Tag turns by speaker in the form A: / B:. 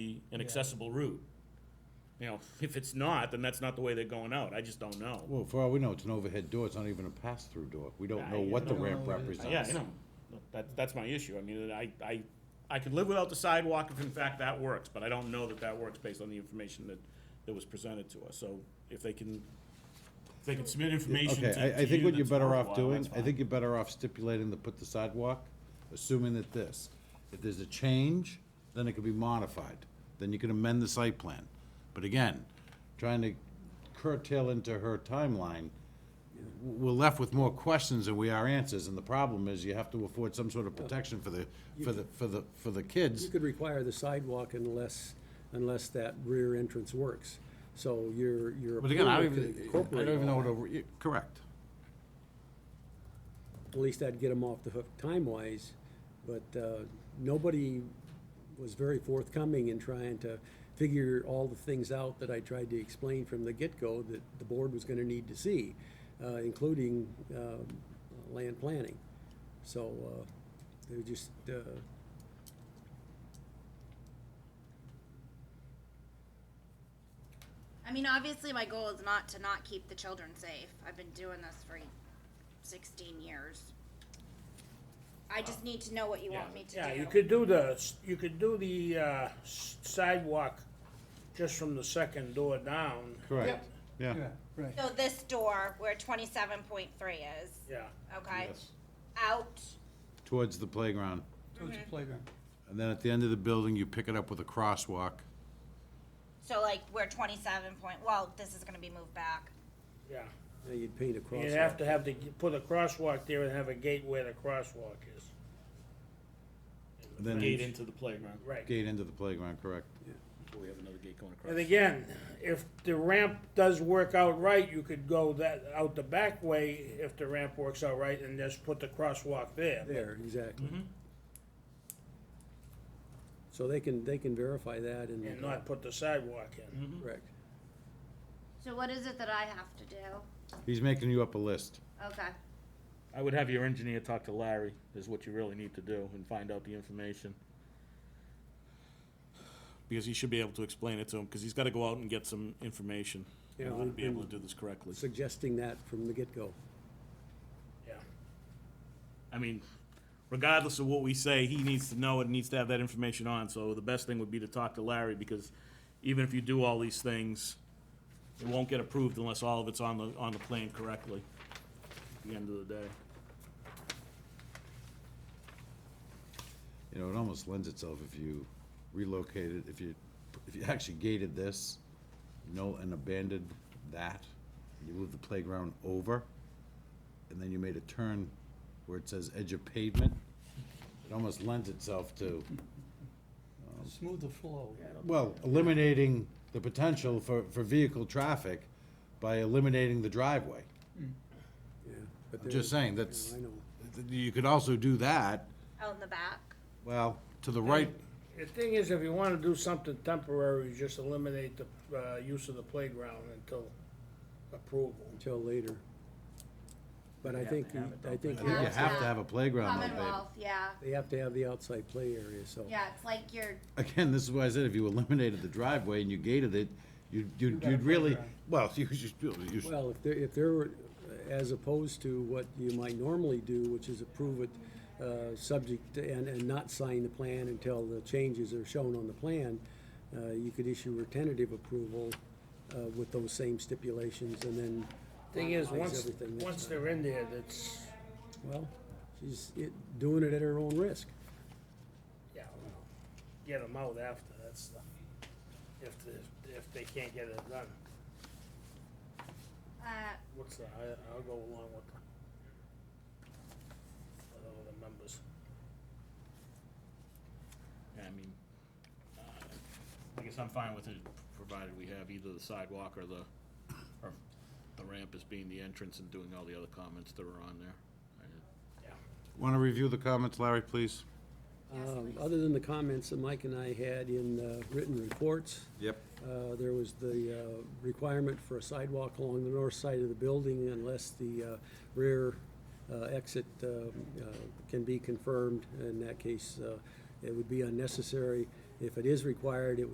A: an accessible route. You know, if it's not, then that's not the way they're going out, I just don't know.
B: Well, for all we know, it's an overhead door, it's not even a pass-through door. We don't know
A: I-
B: what the
C: No,
B: ramp
C: it-
B: represents.
A: Yeah, I know, that, that's my issue, I mean, I, I, I could live without the sidewalk if in fact that works, but I don't know that that works based on the information that, that was presented to us, so if they can, if they can submit information to,
B: Okay,
A: to
B: I, I think what
A: you
B: you're
A: that's
B: better off
A: worthwhile,
B: doing,
A: that's
B: I
A: fine.
B: think you're better off stipulating to put the sidewalk, assuming that this, if there's a change, then it could be modified, then you can amend the site plan. But again, trying to curtail into her timeline, w- we're left with more questions than we are answers, and the problem is you have to afford some sort of protection for the, for the, for the, for the
C: You
B: kids.
C: could require the sidewalk unless, unless that rear entrance works. So your, your.
B: But again, I don't
C: approval
B: even,
C: could
B: I
C: incorporate
B: don't even know
C: all
B: what,
C: that.
B: a re- correct.
C: At least that'd get them off the hook time-wise, but uh, nobody was very forthcoming in trying to figure all the things out that I tried to explain from the get-go that the board was gonna need to see, uh, including um, land planning. So uh, they were just, uh,
D: I mean, obviously, my goal is not to not keep the children safe. I've been doing this for 16 years. I just need to know what you want me to
E: Yeah,
D: do.
E: you could do the, you could do the uh, s- sidewalk just from the second door down.
B: Correct, yeah.
F: right.
D: So this door where 27.3 is,
E: Yeah,
D: okay,
B: Yes.
D: out.
B: Towards the playground.
F: Towards the playground.
B: And then at the end of the building, you pick it up with a crosswalk.
D: So like where 27 point. Well, this is gonna be moved back.
E: yeah.
C: now you'd paint a
E: You'd have
C: crosswalk.
E: to have to g- put a crosswalk there and have a gate where the crosswalk is.
B: and Then
A: Gate into the playground,
E: Right.
B: Gate into the playground, correct.
A: we have another gate going across.
E: And again, if the ramp does work out right, you could go that, out the back way if the ramp works out right and just put the crosswalk there.
C: There, exactly.
E: Mm-hmm.
C: So they can, they can verify that and. uh,
E: And not put the sidewalk in.
D: Mm-hmm.
C: Correct.
D: So what is it that I have to do?
B: He's making you up a list.
D: Okay.
A: I would have your engineer talk to Larry, is what you really need to do, and find out the information. Because he should be able to explain it to him, because he's gotta go out and get some information, in
C: Yeah,
A: order to
C: we-
A: be able to do this correctly.
C: suggesting that from the get-go.
E: Yeah.
A: I mean, regardless of what we say, he needs to know it, needs to have that information on, so the best thing would be to talk to Larry, because even if you do all these things, it won't get approved unless all of it's on the, on the plan correctly, at the end of the day.
B: You know, it almost lends itself if you relocated, if you, if you actually gated this, you know, and abandoned that, you moved the playground over, and then you made a turn where it says edge of pavement, it almost lends itself to, um,
F: Smooth the flow.
B: well, eliminating the potential for, for vehicle traffic by eliminating the driveway.
C: Yeah, but
B: I'm just
C: there-
B: saying, that's,
C: I know.
B: you could also do that,
D: Out in the back.
B: well, to the right,
E: The thing is, if you wanna do something temporary, just eliminate the, uh, use of the playground until approval.
C: Until later. But I
E: have
C: think,
E: to have it,
C: I think
B: I think you
D: Yeah.
B: have to have a playground though, babe.
D: Commonwealth, yeah.
C: they have to have the outside play area, so.
D: Yeah, it's like you're
B: Again, this is why I said if you eliminated the driveway and you gated it, you'd, you'd,
F: got a
B: you'd really,
F: playground.
B: well, you, should- you, should-
C: Well, if there, if there were, as opposed to what you might normally do, which is approve it, uh, subject, to- and, and not sign the plan until the changes are shown on the plan, uh, you could issue a tentative approval, uh, with those same stipulations and then.
E: Thing is,
C: finalize
E: once,
C: everything next
E: once
C: time.
E: they're in there, that's,
C: Well, she's it- doing it at her own risk.
E: yeah, well, get them out after, that's the, if, the- if they can't get it done.
D: uh,
E: What's the, I, I'll go along with the, with all the members.
A: I mean, uh, I guess I'm fine with it, provided we have either the sidewalk or the, or the ramp as being the entrance and doing all the other comments that were on there. I-
B: wanna review the comments, Larry, please?
C: Um, Other than the comments that Mike and I had in uh, written reports,
B: Yep.
C: uh, there was the uh, requirement for a sidewalk along the north side of the building unless the uh, rear uh, exit um, uh, can be confirmed. In that case, uh, it would be unnecessary. If it is required, it would